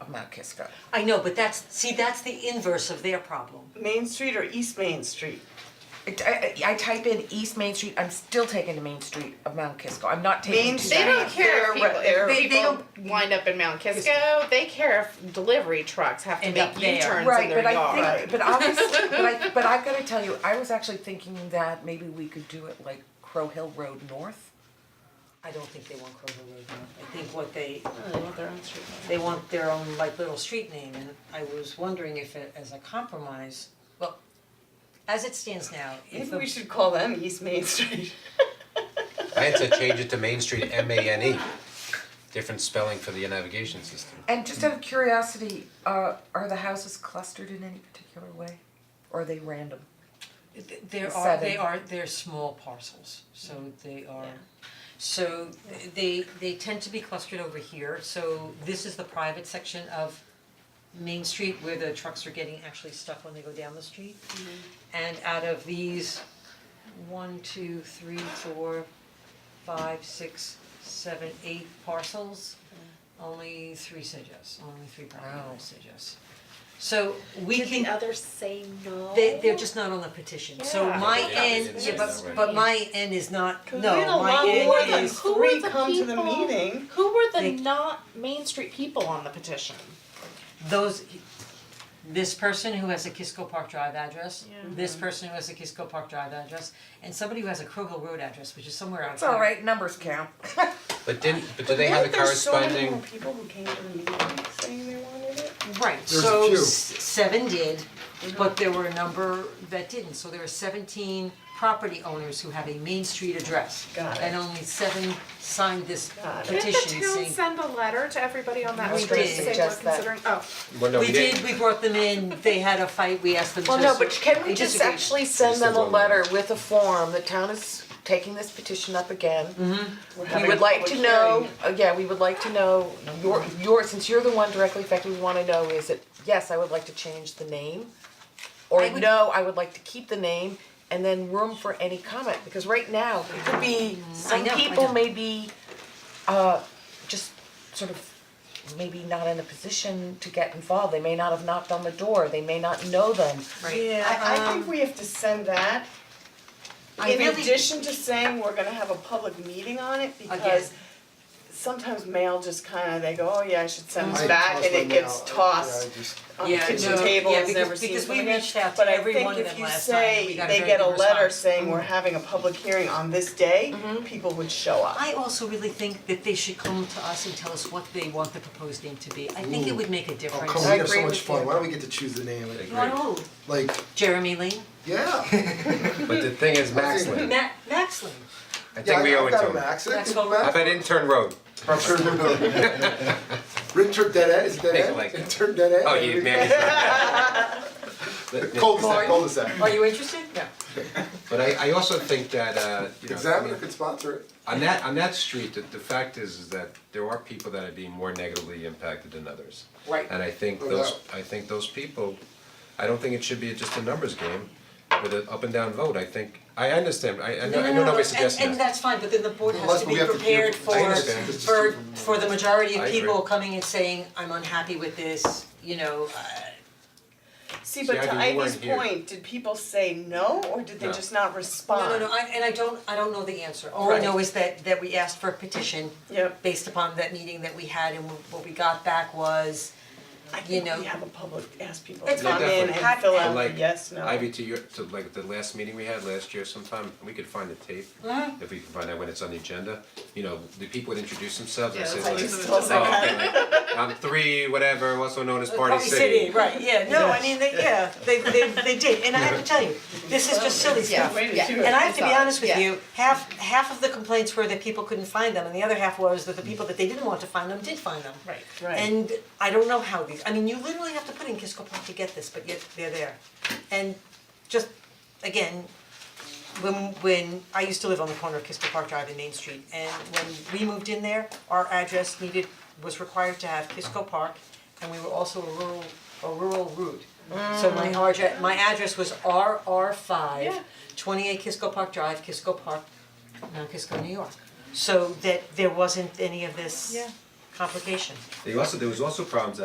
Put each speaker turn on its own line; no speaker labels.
of Mount Kisco.
I know, but that's, see, that's the inverse of their problem.
Main Street or East Main Street?
It- I, I I type in East Main Street, I'm still taking the Main Street of Mount Kisco, I'm not taking
Main
two
Street-
They don't
Exactly.
care if
They're-
people,
they're-
if
They- they
people wind up in Mount Kisco, they care if delivery trucks have to
End
make
up there.
U-turns in
Right,
their
but
yard.
I think, but obviously, but I, but I gotta tell you, I was actually thinking that maybe we could do it like Crow Hill Road North.
I don't think they want Kroger Road North. I think what they,
They want their own street.
they want their own like little street name and I was wondering if it, as a compromise, well, as it stands now, if
Maybe we
the,
should call them East Main Street.
I had to change it to Main Street, M A N E. Different spelling for the navigation system.
And just out of curiosity, uh, are the houses clustered in any particular way? Or are they random?
th- there are, they
Seven.
are, they're small parcels, so they are.
Yeah.
So they, they tend to be clustered over here, so this is the private section of Main Street where the trucks are getting actually stuck when they go down the street. And out of these, one, two, three, four, five, six, seven, eight parcels, only three said yes, only three property owners said yes. So we can.
others say no?
They they're just not on the petition, so
Yeah.
my
Yeah,
end,
it's
yeah,
just
but
not
but my end is not,
We had a
no, my
lot
end
more than
is,
who were
three
the
come to the
people-
meeting.
Who were the
They-
not Main Street people on the petition?
those, this person who has a Kisco Park Drive address,
Yeah.
this
Mm-hmm.
person who has a Kisco Park Drive address, and somebody who has a Crow Hill Road address, which is somewhere out
It's alright, numbers count.
But didn't, but do they have a corresponding?
But there's so many more people who came to the meeting saying they wanted it.
Right,
There's a
so
few.
s- seven did, but there were a number that didn't, so there are seventeen property owners who have a Main Street address.
Got it.
And only seven signed this
Got it.
petition saying.
Didn't the town send a letter to everybody on that
We
street
did.
to say we're
Suggest that.
considering, oh,
Well, no,
We did, we brought them in, they had a fight, we asked them to.
Well, no, but can we
they
just
disagreed.
actually send
Just a
them a
little
letter with a form, the town is taking this petition up again.
Mm-hmm.
We're
We
having
would
a
like to
public
know,
hearing.
uh, yeah, we would like to know your, your, since you're the one directly affected, we wanna know is it, yes, I would like to change the name. Or
I would-
no, I would like to keep the name and then room for any comment, because right now, it could be, some
know, Mm, I
people
know.
may be, uh, just sort of maybe not in a position to get involved, they may not have knocked on the door, they may not know them.
Right.
Yeah, I I think we have to send that
um, I
in
really-
addition to saying we're gonna have a public meeting on it because
Again.
sometimes mail just kinda, they go, oh yeah, I should send this
I
back and
tossed
it
my mail.
gets
Yeah, I
tossed
just-
on the
Yeah,
kitchen
no,
table
yeah,
and is
because-
never seen
because we
from again.
reached out to every one of them last time, and we got a
But I think if you say they
very
get a
good
letter
response. Mm-hmm.
saying we're having a public hearing on this day, people would show up.
I also really think that they should come to us and tell us what they want the proposed name to be, I think it would make a
Oh,
difference.
come on, we have
agree
so much
with
fun,
you.
why don't we get to choose the name,
They-
You wanna know,
like,
Jeremy Lee,
yeah.
But the thing is, Maxley,
Ma- Maxley,
I think
Yeah,
we owe
I
it
got
to
him,
him.
Max, I
That's
think
what-
How
Max.
about intern road?
I'm sure you know. Rin turned dead end, is it
Make it
dead
like-
end? It turned dead end.
Oh, you man.
Cul-de-sac, cul-de-sac.
are you interested? No.
But I I also think that, uh, you know, I mean,
Examiner could sponsor it.
on that, on that street, the the fact is, is that there are people that are being more negatively impacted than others.
Right. Oh,
And I think
No
those,
doubt.
I think those people, I don't think it should be just a numbers game with an up and down vote, I think, I understand, I I know, I know nobody's suggesting
And and
that.
that's fine, but then the board has
Unless
to
we
be
have to be-
prepared
I
for
understand.
for for the majority
I
of
agree.
people coming and saying, I'm unhappy with this, you know, uh,
See, but
See, I
to
think you
Ivy's
weren't here.
point, did people say no or did they
No.
just not respond?
No, no, no, I and I don't, I don't know the answer, all I know
Right.
is that that we asked for a petition
Yep.
based upon that meeting that we had and what we got back was,
I
you
think
know.
we have a public, ask people to
It's
come
fine.
in and
Definitely.
fill
But
out
like,
the Oh, yes, no.
Ivy, to your, to like the last meeting we had last year sometime, we could find the tape,
Mm-hmm.
if we can find out when it's on the agenda, you know, the people would introduce themselves and
Yeah,
say
that's
like,
like
just told
"Oh, okay, like, I'm three, whatever, also known as Party
Party City, right, yeah, no, I mean, they, yeah, they they they did, and I have to tell you, this is just silly
Yeah.
stuff.
Way to
Yeah.
do it.
And I have to be
Solid.
honest with
Yeah.
you, half half of the complaints were that people couldn't find them, and the other half was that the people that they didn't want to find them did find them.
Right.
Right.
And I don't know how these, I mean, you literally have to put in Kisco Park to get this, but yet they're there. And just, again, when when, I used to live on the corner of Kisco Park Drive and Main Street, and when we moved in there, our address needed, was required to have Kisco Park, and we were also a rural, a rural route. So my address, my address was RR five,
Mm. Yeah.
twenty-eight Kisco Park Drive, Kisco Park, Mount Kisco, New York. So that there wasn't any of this
Yeah.
complication.
They also, there was also problems that